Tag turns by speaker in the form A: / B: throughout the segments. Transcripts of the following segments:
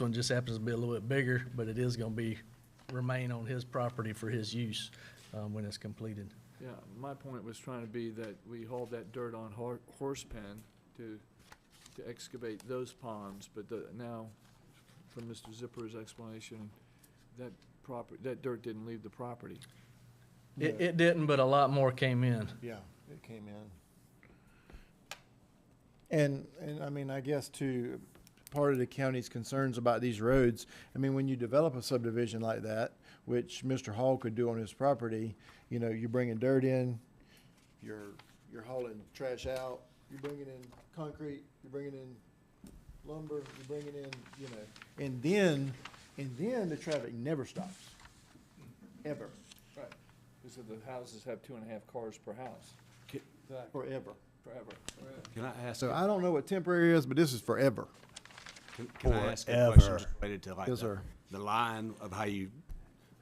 A: one just happens to be a little bit bigger, but it is gonna be, remain on his property for his use, um, when it's completed.
B: Yeah, my point was trying to be that we hauled that dirt on hor- horse pen to, to excavate those ponds, but the, now, from Mr. Zipper's explanation, that proper, that dirt didn't leave the property.
A: It,
C: Yeah.
A: it didn't, but a lot more came in.
C: Yeah, it came in. And, and I mean, I guess to part of the county's concerns about these roads, I mean, when you develop a subdivision like that, which Mr. Hall could do on his property, you know, you're bringing dirt in, you're, you're hauling trash out, you're bringing in concrete, you're bringing in lumber, you're bringing in, you know, and then, and then the traffic never stops, ever,
B: Right. Because the houses have two and a half cars per house.
C: forever.
B: Forever.
D: Can I ask,
C: So I don't know what temporary is, but this is forever.
D: can- can I ask a question
C: Forever.
D: just related to like
C: Yes,
D: the-
C: sir.
D: the line of how you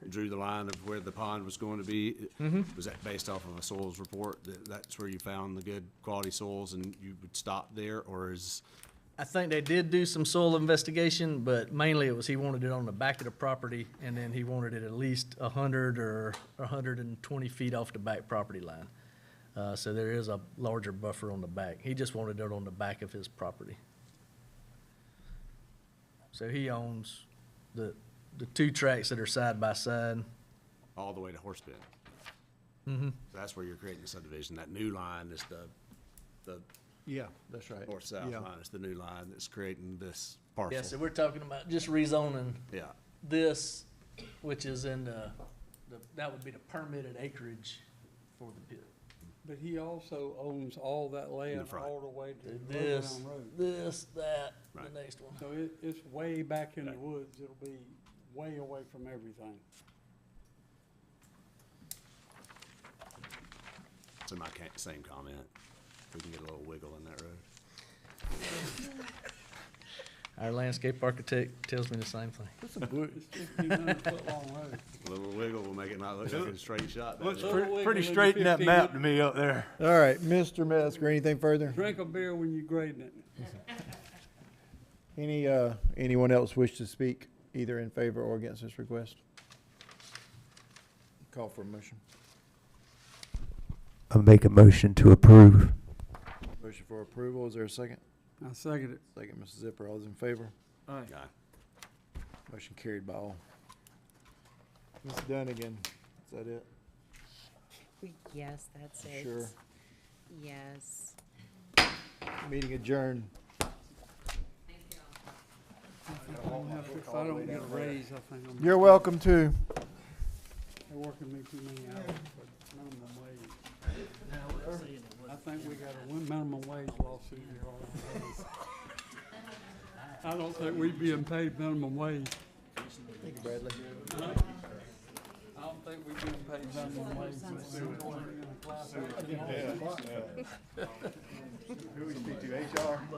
D: drew the line of where the pond was going to be?
C: Mm-hmm.
D: Was that based off of a soils report? That, that's where you found the good quality soils and you would stop there or is,
A: I think they did do some soil investigation, but mainly it was he wanted it on the back of the property, and then he wanted it at least a hundred or a hundred and twenty feet off the back property line. Uh, so there is a larger buffer on the back. He just wanted it on the back of his property. So he owns the, the two tracks that are side by side.
D: all the way to Horse Bend?
C: Mm-hmm.
D: So That's where you're creating the subdivision. That new line is the, the
C: Yeah, that's right.
D: north-south
C: Yeah.
D: line. It's the new line that's creating this
A: Yeah, so
D: parcel.
A: we're talking about just rezoning
D: Yeah,
A: this, which is in the, the- that would be the permitted acreage for the pit.
E: But he also owns all that land
D: front.
E: all the way to
A: This,
E: Loveland Road.
A: this, that,
D: Right.
A: the next one.
E: So it, it's way back in the woods. It'll be way away from everything.
D: so my ca- same comment. If We can get a little wiggle in that road.
A: Our landscape architect tells me the same thing.
C: Put some blue,
E: It's fifteen hundred foot long road.
D: A little wiggle will make it not look like a straight shot. doesn't it?
E: Little wiggle in your 15
F: to me up there.
C: All right, Mr. Metzger, anything further?
E: Drink a beer when you're grading it.
C: Any, uh, anyone else wish to speak either in favor or against this request? Call for a motion.
F: I make a motion to approve.
C: Motion for approval, is there a second?
E: I second it.
C: Second, Mrs. Zipper, all those in favor?
B: Aye.
D: Yeah.
C: Motion carried by all. Ms. Dunnigan, is that it?
G: We- Yes, that's it.
C: Sure.
G: Yes.
C: Meeting adjourned.
E: If I don't get a raise, I think I'm,
C: You're welcome too.
E: they're working me too many hours for minimum wage. I think we got a win- minimum wage lawsuit here all the time. I don't think we'd be paid minimum wage.
C: Thank you, Bradley.
E: I don't think we've been paid minimum wage.
C: Who we speak to, HR?